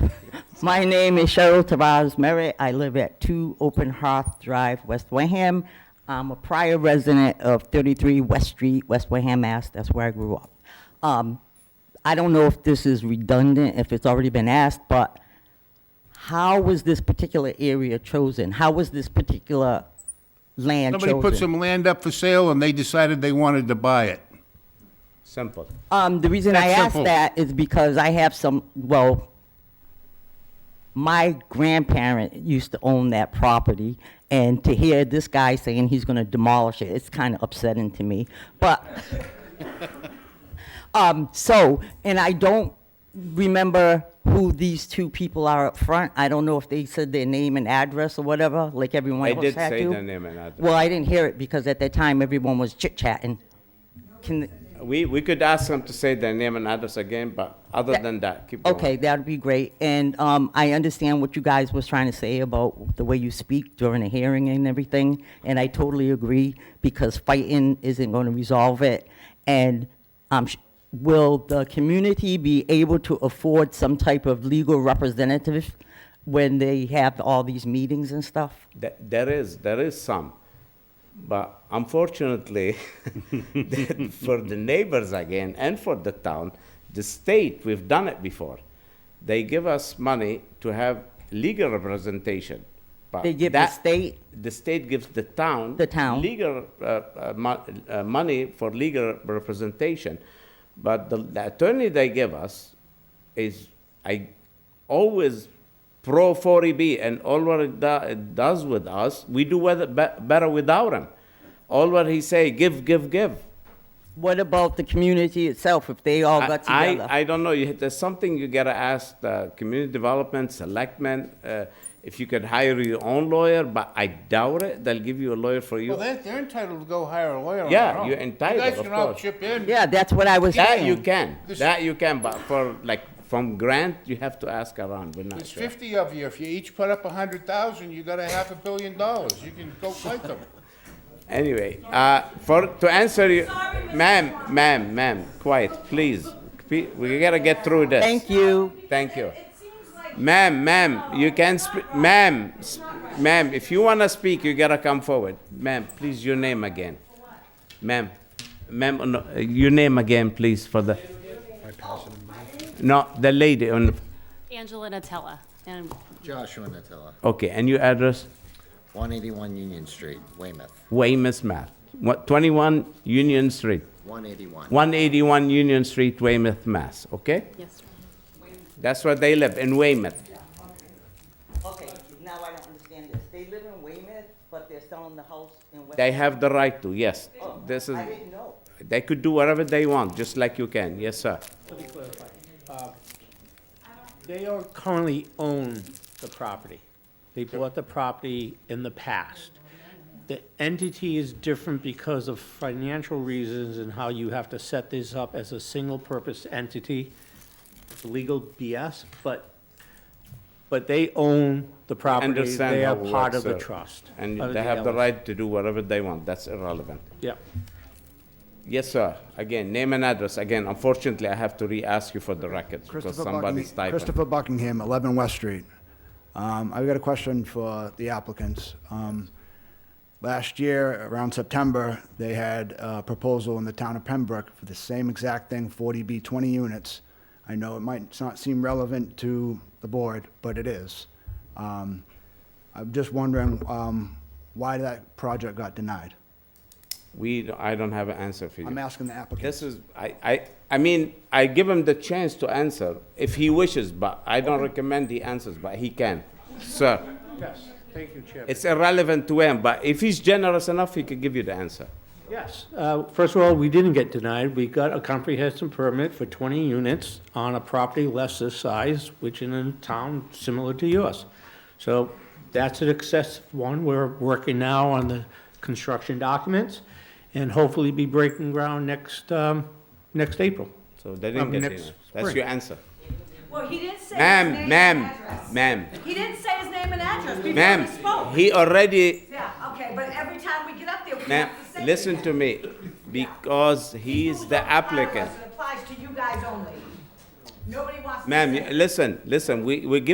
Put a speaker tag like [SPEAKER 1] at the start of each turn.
[SPEAKER 1] My name is Cheryl Tavaz Merritt. I live at 2 Open Hearth Drive, West Wareham. I'm a prior resident of 33 West Street, West Wareham, Mass. That's where I grew up. Um, I don't know if this is redundant, if it's already been asked, but how was this particular area chosen? How was this particular land chosen?
[SPEAKER 2] Somebody put some land up for sale and they decided they wanted to buy it.
[SPEAKER 3] Simple.
[SPEAKER 1] Um, the reason I
[SPEAKER 2] That's
[SPEAKER 1] ask
[SPEAKER 2] simple.
[SPEAKER 1] that is because I have some, well, my grandparent used to own that property, and to hear this guy saying he's gonna demolish it, it's kind of upsetting to me, but, um, so, and I don't remember who these two people are up front. I don't know if they said their name and address or whatever, like everyone
[SPEAKER 3] They
[SPEAKER 1] else
[SPEAKER 3] did
[SPEAKER 1] had
[SPEAKER 3] say
[SPEAKER 1] to.
[SPEAKER 3] their name and address.
[SPEAKER 1] Well, I didn't hear it because at that time, everyone was chit-chatting. Can,
[SPEAKER 3] We, we could ask them to say their name and address again, but other
[SPEAKER 1] That-
[SPEAKER 3] than that, keep going.
[SPEAKER 1] Okay, that'd be great. And um, I understand what you guys was trying to say about the way you speak during the hearing and everything, and I totally agree, because fighting isn't going to resolve it. And um, sh- will the community be able to afford some type of legal representative when they have all these meetings and stuff?
[SPEAKER 3] Th- There is, there is some. But unfortunately, for the neighbors again and for the town, the state, we've done it before. They give us money to have legal representation. but
[SPEAKER 1] They give the
[SPEAKER 3] that-
[SPEAKER 1] state?
[SPEAKER 3] The state gives the town.
[SPEAKER 1] The town.
[SPEAKER 3] Legal, uh, uh, mo- uh, money for legal representation. But the the attorney they give us is, I always pro 40B and all what it do- it does with us, we do whether- be- better without him. All what he say, give, give, give.
[SPEAKER 1] What about the community itself, if they all got
[SPEAKER 3] I-
[SPEAKER 1] together?
[SPEAKER 3] I, I don't know. You- There's something you gotta ask the community development, selectmen, uh, if you could hire your own lawyer, but I doubt it. They'll give you a lawyer for you.
[SPEAKER 2] Well, they're, they're entitled to go hire a lawyer on
[SPEAKER 3] Yeah,
[SPEAKER 2] their own.
[SPEAKER 3] you're entitled,
[SPEAKER 2] You guys
[SPEAKER 3] of
[SPEAKER 2] can all
[SPEAKER 3] course.
[SPEAKER 2] chip in.
[SPEAKER 1] Yeah, that's what I was saying.
[SPEAKER 3] That you can,
[SPEAKER 2] This-
[SPEAKER 3] that you can, but for like, from grant, you have to ask around. We're not
[SPEAKER 2] There's
[SPEAKER 3] sure.
[SPEAKER 2] fifty of you. If you each put up a hundred thousand, you got a half a billion dollars. You can go fight them.
[SPEAKER 3] Anyway, uh, for, to answer you, ma'am, ma'am, ma'am, quiet, please. Pe- We gotta get through this.
[SPEAKER 1] Thank you.
[SPEAKER 3] Thank you. Ma'am, ma'am, you can, sp- ma'am, s- ma'am, if you wanna speak, you gotta come forward. Ma'am, please, your name again. Ma'am, ma'am, uh, no, uh, your name again, please, for the. No, the lady on, the-
[SPEAKER 4] Angela Natella, and
[SPEAKER 5] Joshua Natella,
[SPEAKER 3] okay, and your address?
[SPEAKER 5] 181 Union Street, Weymouth,
[SPEAKER 3] Weymouth, Mass. What, twenty-one Union Street,
[SPEAKER 5] 181.
[SPEAKER 3] one eighty-one Union Street, Weymouth, Mass, okay?
[SPEAKER 4] yes,
[SPEAKER 3] That's where they live, in Weymouth.
[SPEAKER 1] Okay, now I don't understand this. They live in Weymouth, but they're selling the house in West.
[SPEAKER 3] They have the right to, yes. This is.
[SPEAKER 1] I didn't know.
[SPEAKER 3] They could do whatever they want, just like you can. Yes, sir.
[SPEAKER 6] Let me clarify. Uh, They are currently own the property. They bought the property in the past. The entity is different because of financial reasons and how you have to set this up as a single-purpose entity. It's Legal BS, but, but they own the property.
[SPEAKER 3] Understand
[SPEAKER 6] They
[SPEAKER 3] how
[SPEAKER 6] are
[SPEAKER 3] it
[SPEAKER 6] part of
[SPEAKER 3] works,
[SPEAKER 6] the
[SPEAKER 3] sir.
[SPEAKER 6] trust.
[SPEAKER 3] And
[SPEAKER 6] of
[SPEAKER 3] they have the
[SPEAKER 6] LLC.
[SPEAKER 3] right to do whatever they want. That's irrelevant.
[SPEAKER 6] Yeah.
[SPEAKER 3] Yes, sir. Again, name and address. Again, unfortunately, I have to re-ask you for the records because
[SPEAKER 7] Christopher
[SPEAKER 3] somebody's
[SPEAKER 7] Buckingham,
[SPEAKER 3] typing.
[SPEAKER 7] Christopher Buckingham, 11 West Street. Um, I've got a question for the applicants. Um, Last year, around September, they had a proposal in the town of Pembroke for the same exact thing, 40B, 20 units. I know it might not seem relevant to the board, but it is. Um, I'm just wondering um, why that project got denied.
[SPEAKER 3] We, I don't have an answer for you.
[SPEAKER 7] I'm asking the applicant.
[SPEAKER 3] This is, I, I, I mean, I give him the chance to answer if he wishes, but I don't recommend he answers, but he can. Sir,
[SPEAKER 6] Yes, thank you, Chair.
[SPEAKER 3] it's irrelevant to him, but if he's generous enough, he could give you the answer.
[SPEAKER 6] Yes. Uh, First of all, we didn't get denied. We got a comprehensive permit for 20 units on a property less this size, which in a town similar to yours. So that's an excessive one. We're working now on the construction documents and hopefully be breaking ground next, um, next April.
[SPEAKER 3] So they didn't
[SPEAKER 6] Um,
[SPEAKER 3] get
[SPEAKER 6] next
[SPEAKER 3] it. That's
[SPEAKER 6] spring.
[SPEAKER 3] your answer.
[SPEAKER 8] Well, he didn't say his
[SPEAKER 3] Ma'am,
[SPEAKER 8] name and
[SPEAKER 3] ma'am,
[SPEAKER 8] address.
[SPEAKER 3] ma'am,
[SPEAKER 8] He didn't say his name and address before he
[SPEAKER 3] ma'am,
[SPEAKER 8] spoke.
[SPEAKER 3] he already,
[SPEAKER 8] yeah, okay, but every time we get up there, we
[SPEAKER 3] ma'am,
[SPEAKER 8] have to say
[SPEAKER 3] listen
[SPEAKER 8] that.
[SPEAKER 3] to me, because he's the applicant.
[SPEAKER 8] It applies to you guys only. Nobody wants to
[SPEAKER 3] Ma'am,
[SPEAKER 8] say
[SPEAKER 3] you- listen, listen, we, we give